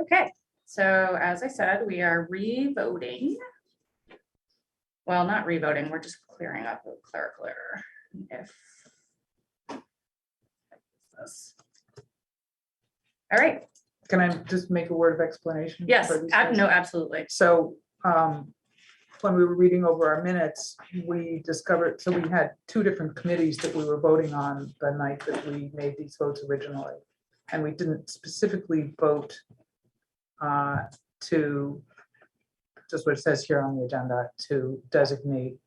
Okay, so as I said, we are re-voting. Well, not re-voting, we're just clearing up a clerical error if. All right, Can I just make a word of explanation? yes, for these ab- things? no, absolutely. So, um, when we were reading over our minutes, we discovered, so we had two different committees that we were voting on the night that we made these votes originally. And we didn't specifically vote, uh, to, just what it says here on the agenda, to designate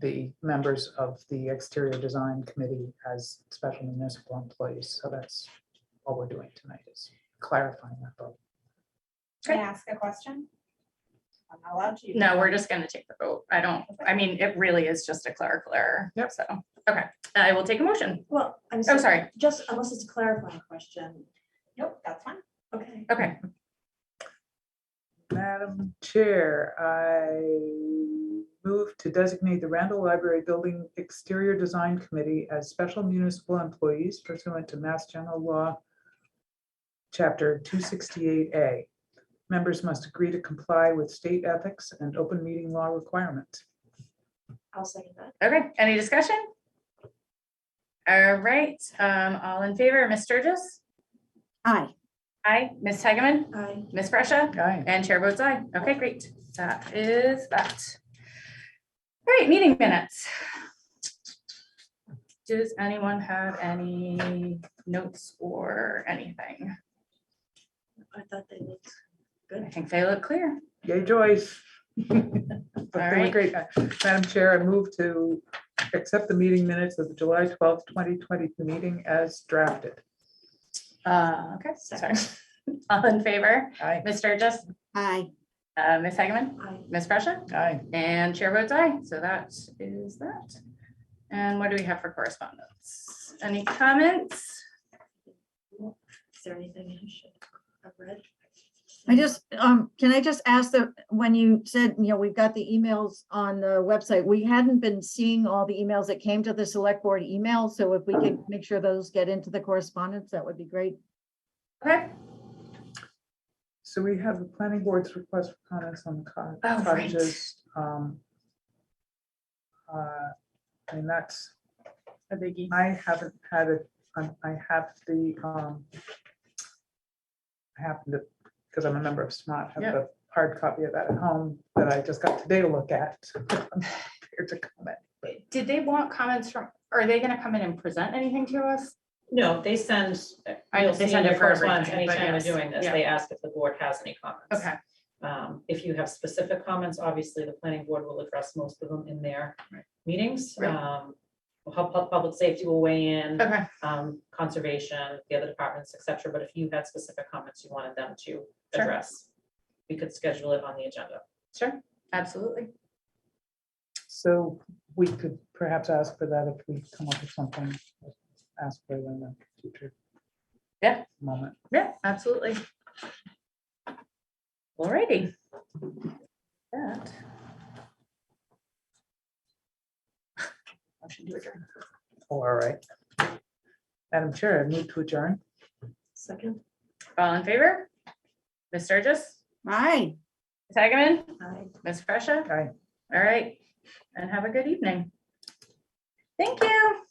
the members of the exterior design committee as special municipal employees. So that's all we're doing tonight is clarifying that vote. Can I ask a question? I'm not allowed to. No, we're just gonna take the vote. I don't, I mean, it really is just a clerical error. Yep. So, okay, I will take a motion. Well, I'm Oh, sorry, sorry. just unless it's a clarifying question, Nope, that's fine. okay. Okay, Madam Chair, I move to designate the Randall Library Building Exterior Design Committee as special municipal employees pursuant to Mass General Law, Chapter 268A. Members must agree to comply with state ethics and open meeting law requirements. I'll second that. okay. Any discussion? All right, um, all in favor, Ms. Sturgis? Aye. Aye. Ms. Hageman? I, Ms. Fresha? Aye. And Chair votes aye. Okay, great. That is that. All right, meeting minutes. Does anyone have any notes or anything? I thought they looked, I think they look clear. Yay, Joyce. But they were Alright. great. Uh, Madam Chair, I move to accept the meeting minutes of the July 12th, 2020 meeting as drafted. Uh, okay, sorry. All in favor? Aye. Ms. Sturgis, Aye. uh, Ms. Hageman, I, Ms. Fresha, Aye. and Chair votes aye. So that is that. And what do we have for correspondence? Any comments? is there anything I should have read? I just, um, can I just ask that, when you said, you know, we've got the emails on the website, we hadn't been seeing all the emails that came to the select board email, so if we could make sure those get into the correspondence, that would be great. Okay, So we have the planning board's request for comments on the co- Oh, right. cottages. um, uh, And that's, a biggie. I haven't had it, um, I have the, um, I happen to, because I'm a member of SMART, have Yep. the hard copy of that at home that I just got today to look at. I'm prepared to comment. Did they want comments from, are they gonna come in and present anything to us? No, they send, I- you'll they see send in it your for correspondence, everything, but anytime yes, we're doing this, yeah. they ask if the board has any comments. Okay, Um, if you have specific comments, obviously the planning board will address most of them in their Right. meetings. Right. Um, pu- pu- public safety will weigh in, okay, um, conservation, the other departments, et cetera, but if you had specific comments you wanted them to Sure. address, we could schedule it on the agenda. sure, absolutely. So we could perhaps ask for that if we come up with something, ask for it in the future. Yeah. Moment. Yeah, absolutely. Alrighty. That. Motion to adjourn. Oh, All right. Madam Chair, I move to adjourn. Second, All in favor? Ms. Sturgis, Aye. Ms. Hageman, I. Ms. Fresha? Aye. All right, and have a good evening. Thank you.